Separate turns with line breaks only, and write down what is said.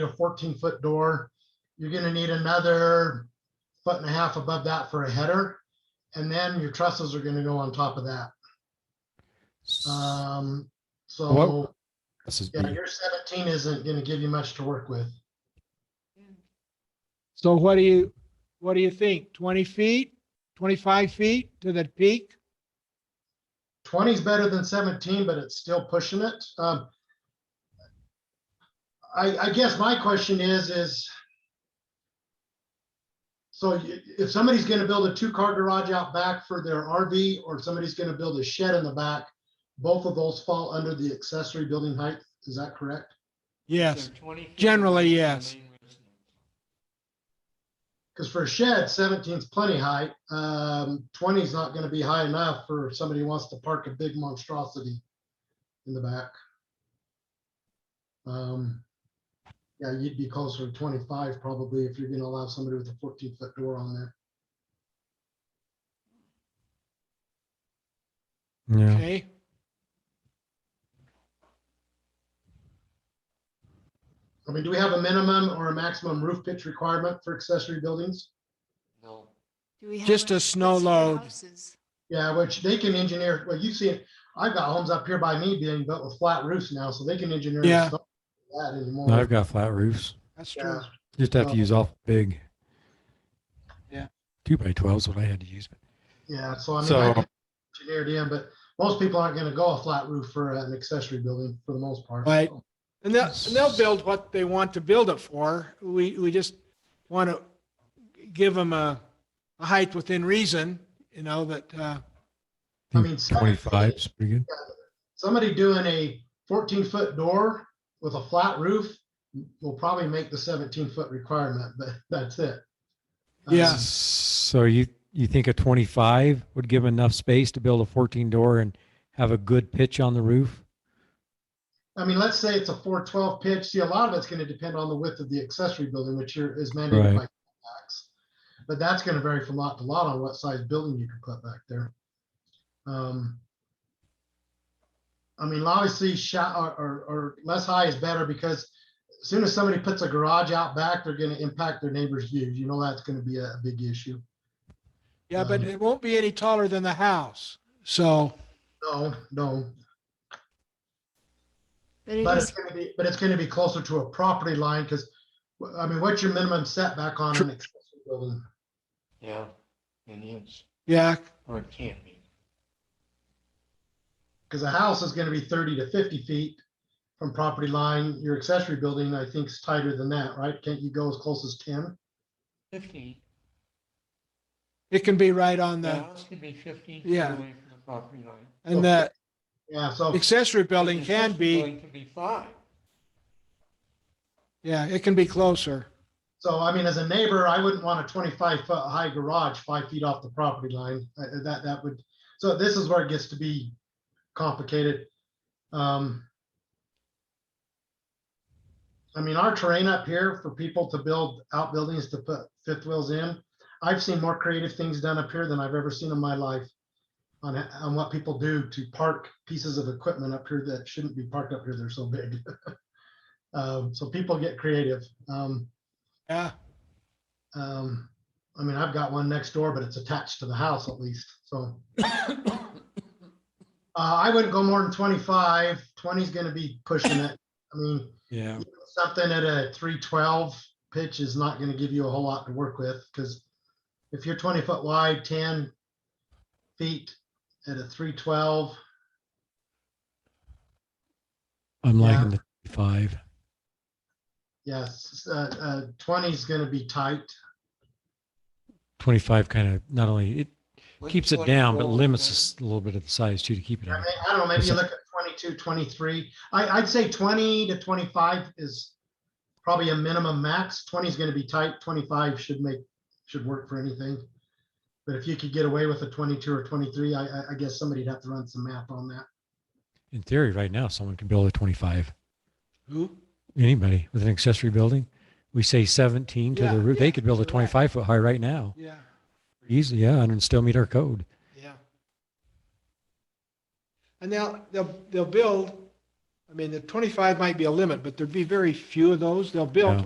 a fourteen foot door. You're gonna need another foot and a half above that for a header. And then your trusses are gonna go on top of that. Um, so,
What- This is
yeah,
B.
your seventeen isn't gonna give you much to work with.
So what do you, what do you think? Twenty feet, twenty-five feet to the peak?
20 is better than 17, but it's still pushing it. Um, I, I guess my question is, is so y- if somebody's gonna build a two-car garage out back for their RV, or somebody's gonna build a shed in the back, both of those fall under the accessory building height, is that correct?
Yes, Generally, yes.
Because for a shed, 17 is plenty high. Um, 20 is not gonna be high enough for if somebody who wants to park a big monstrosity in the back. Um, yeah, you'd be closer to 25 probably if you're gonna allow somebody with a 14 foot door on there.
Yeah.
okay.
I mean, do we have a minimum or a maximum roof pitch requirement for accessory buildings?
No.
Do we have
Just
any
a snow
accessory
load.
houses?
Yeah, which they can engineer, well, you see, it. I've got homes up here by me being built with flat roofs now, so they can engineer.
Yeah.
stuff like That anymore.
No, I've got flat roofs.
That's
Yeah.
true.
Just have to
Oh.
use off big.
Yeah.
Two by twelves what I had to use. but-
Yeah, so I mean, I
So-
can engineer it in, but most people aren't gonna go a flat roof for an accessory building for the most part.
Right. And they'll, and they'll build what they want to build it for. We, we just want to give them a, a height within reason, you know, that, uh,
I
I
mean,
think
some-
twenty-five is pretty good.
Somebody doing a fourteen foot door with a flat roof will probably make the seventeen foot requirement, but that's it. Um,
Yeah.
So you, you think a twenty-five would give enough space to build a fourteen door and have a good pitch on the roof?
I mean, let's say it's a four twelve pitch. See, a lot of it's gonna depend on the width of the accessory building, which you're- is mandated
Right.
by setbacks. But that's gonna vary from lot to lot on what size building you can put back there. Um. I mean, obviously, shot or, or, or less high is better because as soon as somebody puts a garage out back, they're gonna impact their neighbor's views. You know, that's gonna be a big issue.
yeah, but
Um,
it won't be any taller than the house. So,
No, no,
But it
But it's
is,
gonna be, but it's gonna be closer to a property line, because, I mean, what's your minimum setback on an accessory building?
Yeah, it is,
yeah,
or it can be.
Because a house is gonna be thirty to fifty feet from property line, your accessory building, I think, is tighter than that, right? Can't you go as close as ten?
Fifty,
it can be right on
the
the,
house can be fifty feet
Yeah.
away from the property line.
and the
Yeah, so,
accessory building can
Accessory
be,
building Can be five.
yeah, it can be closer.
so I mean, as a neighbor, I wouldn't want a twenty-five foot high garage five feet off the property line. Uh, uh, That, that would, so this is where it gets to be complicated. Um, I mean, our terrain up here for people to build outbuildings to put fifth wheels in, I've seen more creative things done up here than I've ever seen in my life on, on what people do to park pieces of equipment up here that shouldn't be parked up here. They're so big. Um, so people get creative. Um,
Yeah,
um, I mean, I've got one next door, but it's attached to the house at least, so. Uh, I wouldn't go more than 25. 20 is gonna be pushing it. I mean,
Yeah.
something at a three twelve pitch is not gonna give you a whole lot to work with, because if you're twenty foot wide, ten feet at a three twelve,
I'm
Yeah.
liking the five.
yes, uh, uh, twenty is gonna be tight.
Twenty-five kind of, not only, it
What's
keeps it
what
down, but
goes
limits
in?
us a little bit of the size too, to keep it.
I
on.
mean, I don't know, maybe you look
Percent.
at 22, 23. I, I'd say 20 to 25 is probably a minimum max. 20 is going to be tight. 25 should make, should work for anything. But if you could get away with a 22 or 23, I, I- I guess somebody'd have to run some math on that.
In theory, right now, someone can build a twenty-five.
who?
Anybody with an accessory building, we say seventeen to
Yeah.
the roof, they could build a
Correct.
twenty-five foot high right now.
Yeah,
Easily, yeah, and still meet our code.
yeah. And they'll, they'll, they'll build I mean, the 25 might be a limit, but there'd be very few of those. They'll build
Yeah.